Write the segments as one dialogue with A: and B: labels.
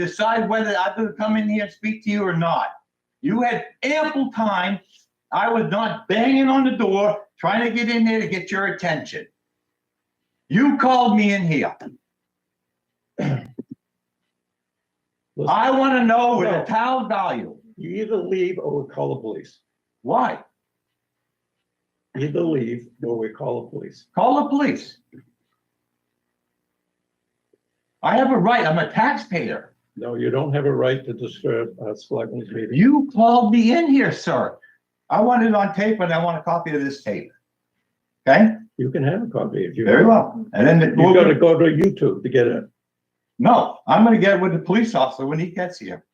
A: decide whether I'm gonna come in here and speak to you or not. You had ample time. I was not banging on the door, trying to get in there to get your attention. You called me in here.
B: Listen,
A: I want to know what the town value.
B: you either leave or we call the police.
A: Why?
B: Either leave or we call the police.
A: Call the police. I have a right. I'm a taxpayer.
B: No, you don't have a right to disturb a selectman's meeting.
A: You called me in here, sir. I want it on tape and I want a copy of this tape. Okay,
B: You can have a copy if you.
A: very well. And then,
B: You gotta go to YouTube to get it.
A: no, I'm gonna get with the police officer when he gets here.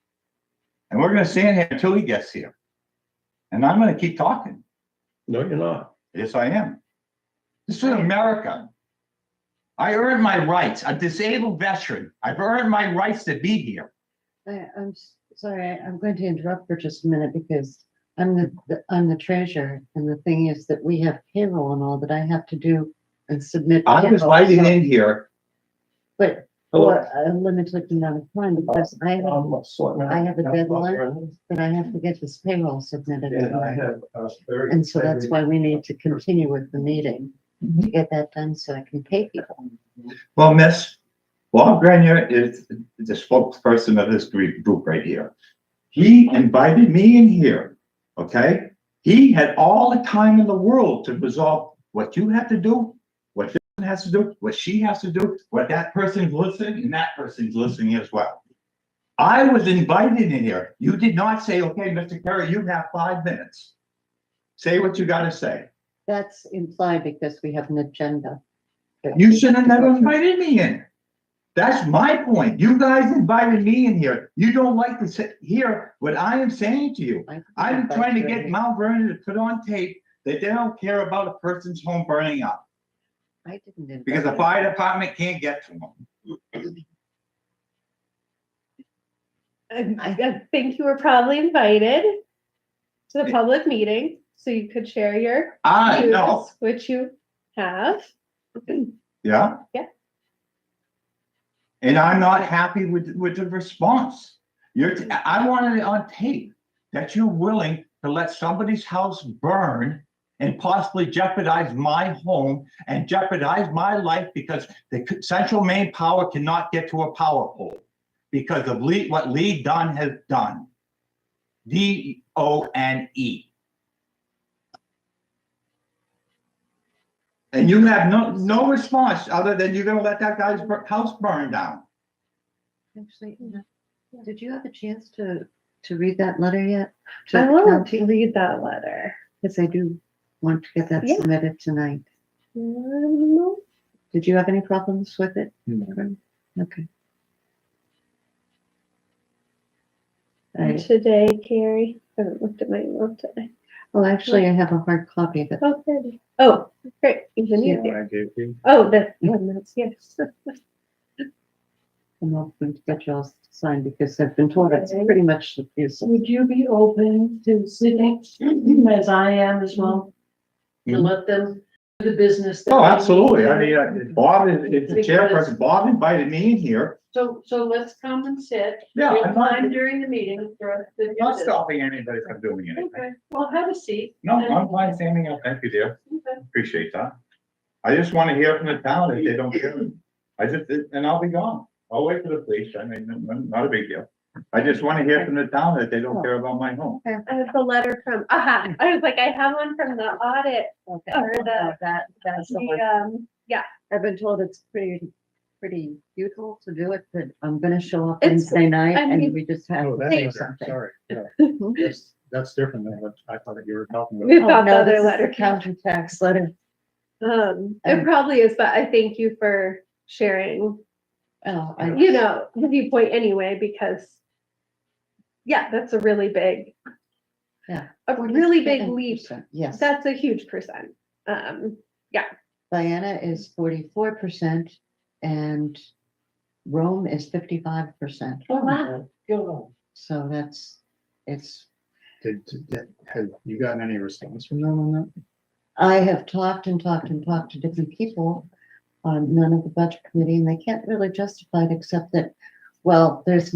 A: And we're gonna stay in here until he gets here. And I'm gonna keep talking.
B: No, you're not.
A: Yes, I am. This is America. I earned my rights, a disabled veteran. I've earned my rights to be here.
C: I, I'm s- sorry, I- I'm going to interrupt for just a minute because I'm the- the, I'm the treasurer. And the thing is that we have payroll and all that I have to do and submit.
A: I was
C: payroll,
A: lighting
C: so-
A: in here.
C: But for
B: Hello.
C: a limited amount of time because I have,
B: I'm Selectman-
C: I have a deadline. but I have to get this payroll submitted.
B: And I have a very.
C: And so that's why we need to continue with the meeting to get that done so I can pay people.
A: Well, Miss, Bob Grenier is the spokesperson of this group group right here. He invited me in here, okay? He had all the time in the world to resolve what you have to do, what this one has to do, what she has to do, what that person's listening and that person's listening as well. I was invited in here. You did not say, okay, Mr. Kerry, you have five minutes. Say what you gotta say.
C: That's implied because we have an agenda. that
A: You
C: we
A: should have
C: have to go
A: never
C: through.
A: invited me in. That's my point. You guys invited me in here. You don't like to sit, hear what I am saying to you.
C: I-
A: I'm
C: but
A: trying to
C: you're-
A: get Mount Vernon to put on tape that they don't care about a person's home burning up
C: I didn't. invite
A: because the
C: you.
A: fire department can't get to them.
D: I, I think you were probably invited to the public meeting, so you could share your
A: I know,
D: views, which you have.
A: yeah?
D: Yeah.
A: And I'm not happy with, with the response. You're, t- I wanted it on tape that you're willing to let somebody's house burn and possibly jeopardize my home and jeopardize my life because the c- central main power cannot get to a power pole because of Lee, what Lee Dunn has done. D O N E. And you have no, no response other than you're gonna let that guy's bur- house burn down.
C: Actually,
E: Hmm.
C: no. did you have a chance to, to read that letter yet? To
D: I want
C: county?
D: to read that letter.
C: Because I do want to get that
D: Yeah.
C: submitted tonight.
D: Um,
C: Did you have any problems with it?
B: No.
C: Karen? Okay. All right.
D: Today, Carrie, I haven't looked at my email today.
C: Well, actually, I have a hard copy that
D: Oh, there it is. Oh, great, even
C: Yeah.
D: easier. Oh, that one, that's, yes.
C: I'm open to get you all to sign because I've been told it's pretty much abusive.
E: Would you be open to sitting as I am as well? To
A: Mhm.
E: let them do the business. that
A: Oh,
E: they need
A: absolutely. I
E: to
A: mean,
E: do?
A: uh, Bob is, is the chairperson. Bob invited me in here.
E: So, so let's come and sit.
A: Yeah,
E: We'll
A: I'm not,
E: Time during the meeting for us to do
A: not
E: this.
A: stopping anybody from doing anything.
E: Okay, well, have a seat.
A: No,
E: and-
A: I'm fine standing up. Thank you, dear.
E: Okay.
A: Appreciate that. I just want to hear from the town if they don't care. I just, and I'll be gone. I'll wait for the police. I mean, n- n- not a big deal. I just want to hear from the town that they don't care about my home.
D: I have the letter from, aha, I was like, I have one from the audit,
C: Okay.
D: Or the-
C: That, that's the one.
D: the, um, yeah,
C: I've been told it's pretty, pretty futile to do it, but I'm gonna show up
D: It's-
C: Wednesday night
D: I
C: and
D: mean-
C: we just have
F: Oh,
C: to
F: that
C: do
F: is-
C: something.
F: Sorry, yeah. That's, that's different than what I thought that you were talking about.
D: we've
C: Oh,
D: got the
C: no,
D: other
C: this is the
D: letter.
C: Counter tax letter.
D: Um,
C: And-
D: it probably is, but I thank you for sharing,
C: Oh, I,
D: you know, the viewpoint anyway, because yeah, that's a really big,
C: Yeah.
D: a really big leap.
C: 47%, Yes.
D: That's a huge percent. Um,
C: Diana is forty-four percent and Rome is fifty-five percent.
E: Oh, wow. Go on.
C: So that's, it's,
F: Did, did- did- have you gotten any response from them on that?
C: I have talked and talked and talked to different people on none of the budget committee and they can't really justify it except that, well, there's